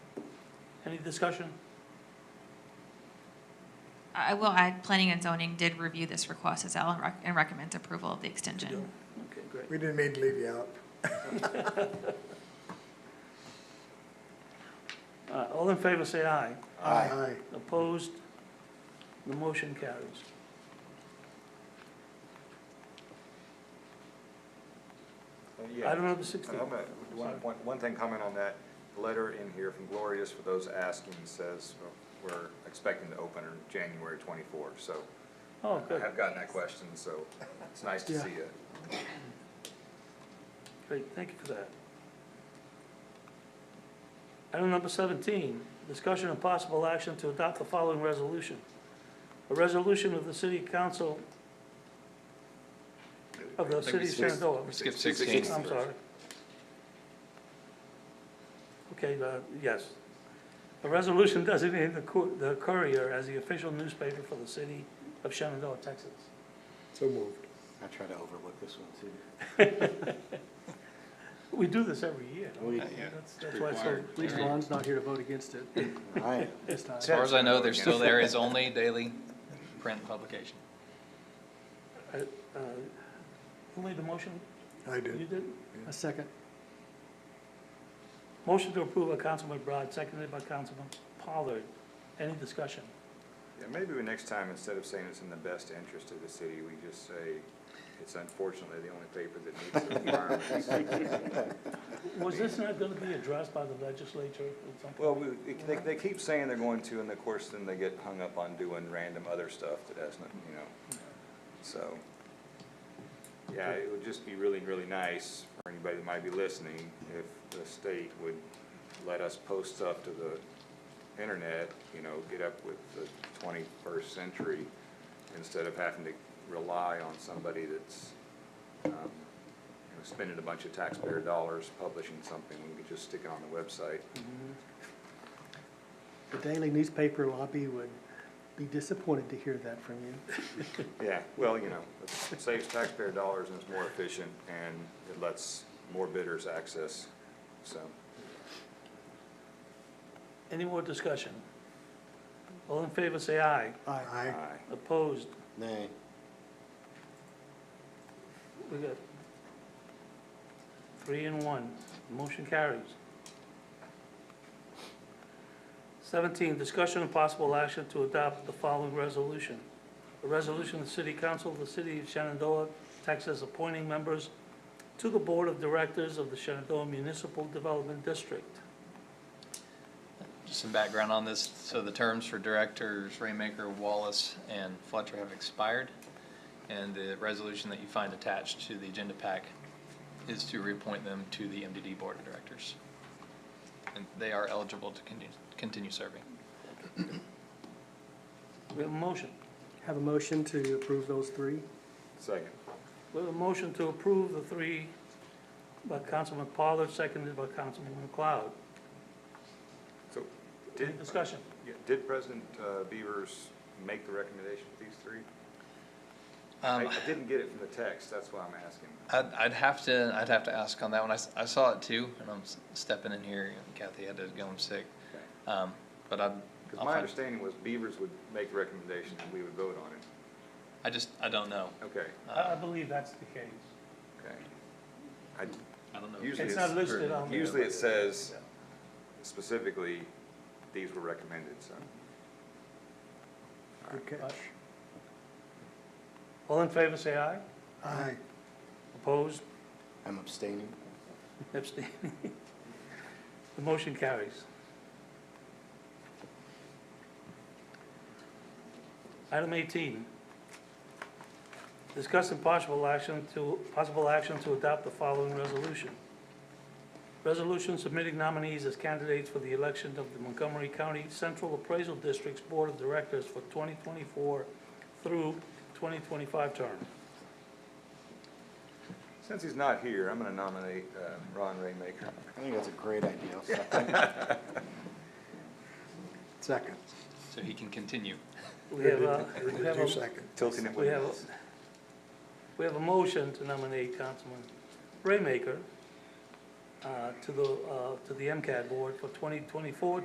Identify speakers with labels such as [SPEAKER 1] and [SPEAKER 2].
[SPEAKER 1] Any discussion?
[SPEAKER 2] I will add, planning and zoning did review this request as well and rec- and recommends approval of the
[SPEAKER 1] Yeah.
[SPEAKER 2] extension.
[SPEAKER 1] Okay, great.
[SPEAKER 3] We didn't mean to leave you out.
[SPEAKER 1] All right, Uh, All in favor, say aye.
[SPEAKER 3] Aye.
[SPEAKER 1] Opposed? The motion carries. Item number 16.
[SPEAKER 4] I'm gonna- One, one, one thing comment on that, the letter in here from Glorious, for those asking, says uh, we're expecting to open in January twenty-four, so.
[SPEAKER 1] Oh,
[SPEAKER 4] I
[SPEAKER 1] good,
[SPEAKER 4] have gotten that question, so it's nice to
[SPEAKER 1] Yeah.
[SPEAKER 4] see it.
[SPEAKER 1] great, thank you for that. Item number 17, discussion and possible action to adopt the following resolution. A resolution of the City Council of the
[SPEAKER 4] I think
[SPEAKER 1] City
[SPEAKER 4] we
[SPEAKER 1] of
[SPEAKER 4] skipped-
[SPEAKER 1] Shenandoah.
[SPEAKER 4] we skipped
[SPEAKER 5] 16.
[SPEAKER 1] I'm sorry. Okay, uh, yes. A resolution designating the Cour- the Courier as the official newspaper for the city of Shenandoah, Texas.
[SPEAKER 3] So moved.
[SPEAKER 5] I try to overlook this one too.
[SPEAKER 1] We do this every year.
[SPEAKER 3] Oh,
[SPEAKER 5] We-
[SPEAKER 6] Uh, yeah.
[SPEAKER 1] That's that's why it's so
[SPEAKER 5] required.
[SPEAKER 6] At least Ron's not here to vote against it
[SPEAKER 5] Right.
[SPEAKER 6] this time.
[SPEAKER 1] As
[SPEAKER 6] As
[SPEAKER 1] far
[SPEAKER 6] far as I know, there's still there is only daily print publication.
[SPEAKER 1] Uh, Who made the motion?
[SPEAKER 3] I
[SPEAKER 1] You
[SPEAKER 3] did.
[SPEAKER 1] did?
[SPEAKER 6] A second.
[SPEAKER 1] Motion to approve by Councilman Broad, seconded by Councilman Pollard. Any discussion?
[SPEAKER 4] Yeah, maybe we next time, instead of saying it's in the best interest of the city, we just say, it's unfortunately the only paper that meets the requirements.
[SPEAKER 1] Was this not going to be addressed by the legislature at some point?
[SPEAKER 4] Well, we- they, they keep saying they're going to, and of course, then they get hung up on doing random other stuff that has nothing, you know, so. Yeah, it would just be really, really nice for anybody that might be listening, if the state would let us post stuff to the internet, you know, get up with the twenty-first century, instead of having to rely on somebody that's, um, you know, spending a bunch of taxpayer dollars publishing something, we could just stick it on the website.
[SPEAKER 7] The daily newspaper lobby would be disappointed to hear that from you.
[SPEAKER 4] Yeah, well, you know, it saves taxpayer dollars and it's more efficient and it lets more bidders access, so.
[SPEAKER 1] Any more discussion? All in favor, say aye.
[SPEAKER 3] Aye.
[SPEAKER 4] aye.
[SPEAKER 1] Opposed?
[SPEAKER 5] Nay.
[SPEAKER 1] We got three and one. Motion carries. Seventeen, discussion and possible action to adopt the following resolution. A resolution of the City Council of the City of Shenandoah, Texas, appointing members to the Board of Directors of the Shenandoah Municipal Development District.
[SPEAKER 6] Just some background on this. So the terms for directors Raymaker, Wallace, and Fletcher have expired. And the resolution that you find attached to the agenda pack is to reappoint them to the MDD Board of Directors. And they are eligible to continue, continue serving.
[SPEAKER 1] We have a motion.
[SPEAKER 7] Have a motion to approve those three?
[SPEAKER 4] Second.
[SPEAKER 1] We have a motion to approve the three by Councilman Pollard, seconded by Councilman McLeod.
[SPEAKER 4] So,
[SPEAKER 1] Any
[SPEAKER 4] did,
[SPEAKER 1] discussion?
[SPEAKER 4] yeah, did President uh, Beavers make the recommendation of these three? I
[SPEAKER 6] Um,
[SPEAKER 4] I didn't get it from the text, that's why I'm asking.
[SPEAKER 6] I'd, I'd have to, I'd have to ask on that one. I, s- I saw it too, and I'm s- stepping in here. Kathy had to go home sick.
[SPEAKER 4] Okay.
[SPEAKER 6] Um, but I,
[SPEAKER 4] Because
[SPEAKER 6] I'll
[SPEAKER 4] my
[SPEAKER 6] find,
[SPEAKER 4] understanding was Beavers would make the recommendation and we would vote on it.
[SPEAKER 6] I just, I don't know.
[SPEAKER 4] Okay,
[SPEAKER 1] I, I believe that's the case.
[SPEAKER 4] okay. I,
[SPEAKER 6] I don't know.
[SPEAKER 4] usually
[SPEAKER 1] It's not
[SPEAKER 4] it's,
[SPEAKER 1] listed on there.
[SPEAKER 4] usually it says specifically, these were recommended, so.
[SPEAKER 3] Good catch.
[SPEAKER 1] All in favor, say aye.
[SPEAKER 3] Aye.
[SPEAKER 1] Opposed,
[SPEAKER 5] I'm abstaining.
[SPEAKER 1] abstaining. The motion carries. Item 18. Discuss and possible action to, possible action to adopt the following resolution. Resolution submitting nominees as candidates for the election of the Montgomery County Central Appraisal District's Board of Directors for 2024 through 2025 term.
[SPEAKER 4] Since he's not here, I'm gonna nominate uh, Ron Raymaker.
[SPEAKER 5] I think that's a great idea. I'll second.
[SPEAKER 3] Second.
[SPEAKER 6] So he can continue.
[SPEAKER 1] We have a, we have
[SPEAKER 3] Two
[SPEAKER 1] a
[SPEAKER 3] second.
[SPEAKER 4] Tilting it
[SPEAKER 1] We
[SPEAKER 4] with
[SPEAKER 1] have, we have a motion to nominate Councilman Raymaker uh, to the, uh, to the MCAT board for 2024,